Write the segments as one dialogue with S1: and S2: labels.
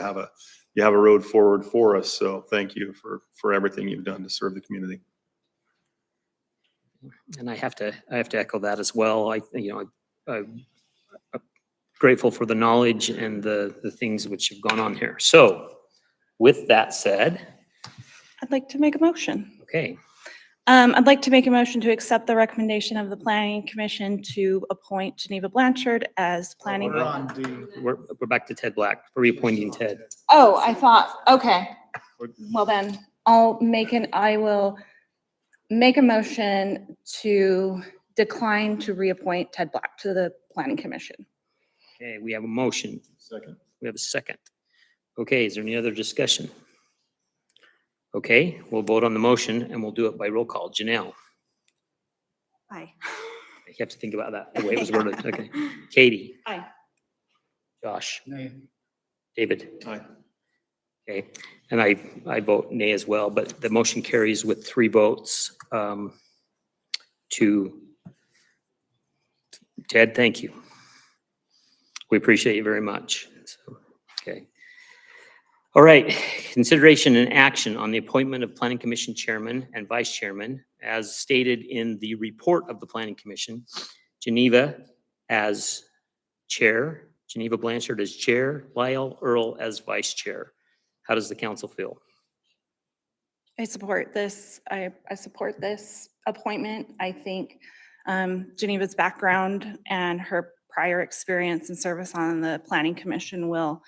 S1: have a, you have a road forward for us. So thank you for, for everything you've done to serve the community.
S2: And I have to, I have to echo that as well. I, you know, I- I'm uh, grateful for the knowledge and the, the things which have gone on here. So with that said,
S3: I'd like to make a motion.
S2: okay,
S3: Um, I'd like to make a motion to accept the recommendation of the planning commission to appoint Geneva Blanchard as planning.
S4: We're on D.
S2: we're, we're back to Ted Black, reappointing Ted.
S3: Oh, I thought, okay. Well then, I'll make an, I will make a motion to decline to reappoint Ted Black to the planning commission.
S2: Okay, we have a motion.
S1: Second.
S2: We have a second. Okay, is there any other discussion? Okay, we'll vote on the motion and we'll do it by roll call. Janelle,
S3: Aye.
S2: you have to think about that, the way it was worded. Okay. Katie?
S3: Aye.
S2: Josh?
S4: Nay.
S2: David?
S1: Aye.
S2: Okay, and I, I vote nay as well, but the motion carries with three votes um, to, Ted, thank you. We appreciate you very much. So, Okay. All right, consideration and action on the appointment of Planning Commission Chairman and Vice Chairman as stated in the report of the Planning Commission. Geneva as Chair, Geneva Blanchard as Chair, Lyle Earl as Vice Chair. How does the council feel?
S3: I support this. I, I support this appointment. I think um, Geneva's background and her prior experience and service on the Planning Commission will,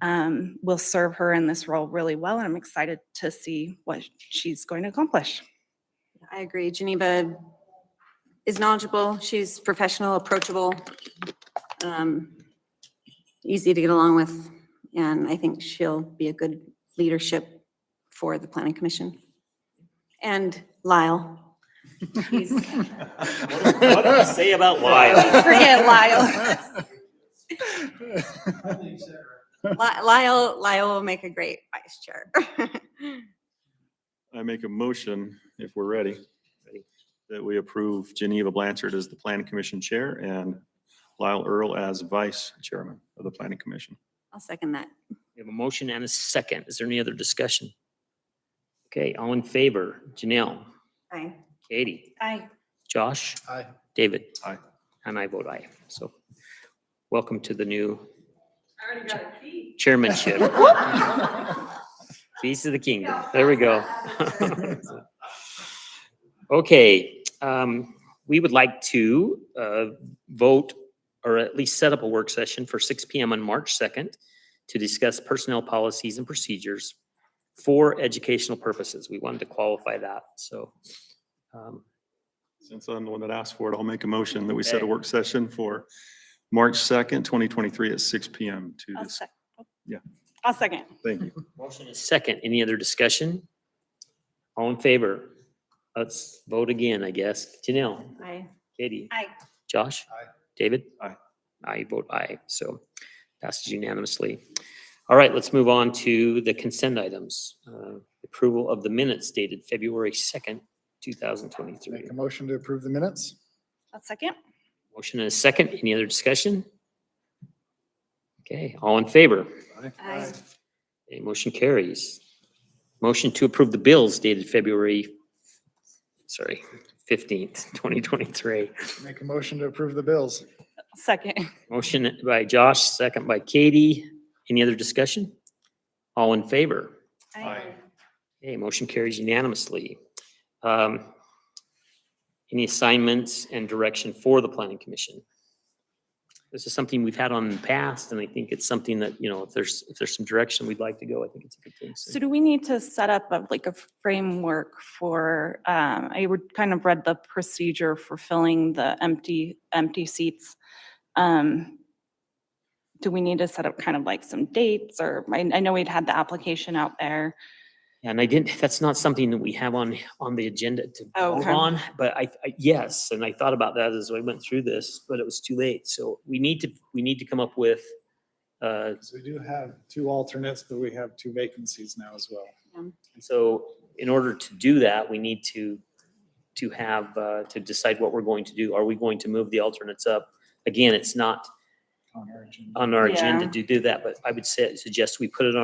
S3: um, will serve her in this role really well, and I'm excited to see what she's going to accomplish.
S5: I agree. Geneva is knowledgeable. She's professional, approachable, um, easy to get along with, and I think she'll be a good leadership for the planning commission. And Lyle. He's-
S2: What do you say about Lyle?
S3: Forget Lyle.
S5: Li- Lyle, Lyle will make a great vice chair.
S1: I make a motion, if we're ready, that we approve Geneva Blanchard as the Planning Commission Chair and Lyle Earl as Vice Chairman of the Planning Commission.
S5: I'll second that.
S2: We have a motion and a second. Is there any other discussion? Okay, all in favor? Janelle,
S5: Aye.
S2: Katie,
S3: Aye.
S2: Josh,
S4: Aye.
S2: David?
S1: Aye.
S2: And I vote aye. So welcome to the new chairmanship. Peace of the kingdom. There we go. Okay, um, we would like to, uh, vote or at least set up a work session for six P M on March second to discuss personnel policies and procedures for educational purposes. We wanted to qualify that, so. um,
S1: Since I'm the one that asked for it, I'll make a motion that we set
S2: Okay.
S1: a work session for March 2nd, 2023 at six PM to
S3: I'll
S1: this.
S3: sec-
S1: Yeah.
S3: I'll second.
S1: Thank you.
S2: Motion is second. Any other discussion? All in favor? Let's vote again, I guess. Janelle,
S5: Aye.
S2: Katie,
S3: Aye.
S2: Josh?
S4: Aye.
S2: David?
S1: Aye.
S2: I vote aye, so passes unanimously. All right, let's move on to the consent items. Uh, Approval of the minutes dated February second, two thousand twenty-three.
S4: Make a motion to approve the minutes?
S3: I'll second.
S2: Motion and a second. Any other discussion? Okay, all in favor?
S5: Aye.
S2: Okay, motion carries. Motion to approve the bills dated February, sorry, fifteenth, twenty twenty-three.
S4: Make a motion to approve the bills?
S3: I'll Second.
S2: Motion by Josh, second by Katie. Any other discussion? All in favor?
S1: Aye.
S2: Okay, motion carries unanimously. Um, Any assignments and direction for the planning commission? This is something we've had on in the past, and I think it's something that, you know, if there's, if there's some direction we'd like to go, I think it's a good thing.
S3: So do we need to set up a, like a framework for, um, I would kind of read the procedure for filling the empty, empty seats. Um, Do we need to set up kind of like some dates or, I, I know we'd had the application out there.
S2: And I didn't, that's not something that we have on, on the agenda to
S3: Oh,
S2: vote
S3: okay.
S2: on, but I, I- yes, and I thought about that as I went through this, but it was too late. So we need to, we need to come up with, uh,
S4: So we do have two alternates, but we have two vacancies now as well.
S2: so in order to do that, we need to, to have, uh, to decide what we're going to do. Are we going to move the alternates up? Again, it's not,
S4: on our agenda.
S2: on our
S3: Yeah.
S2: agenda to do that, but I would say, suggest we put it on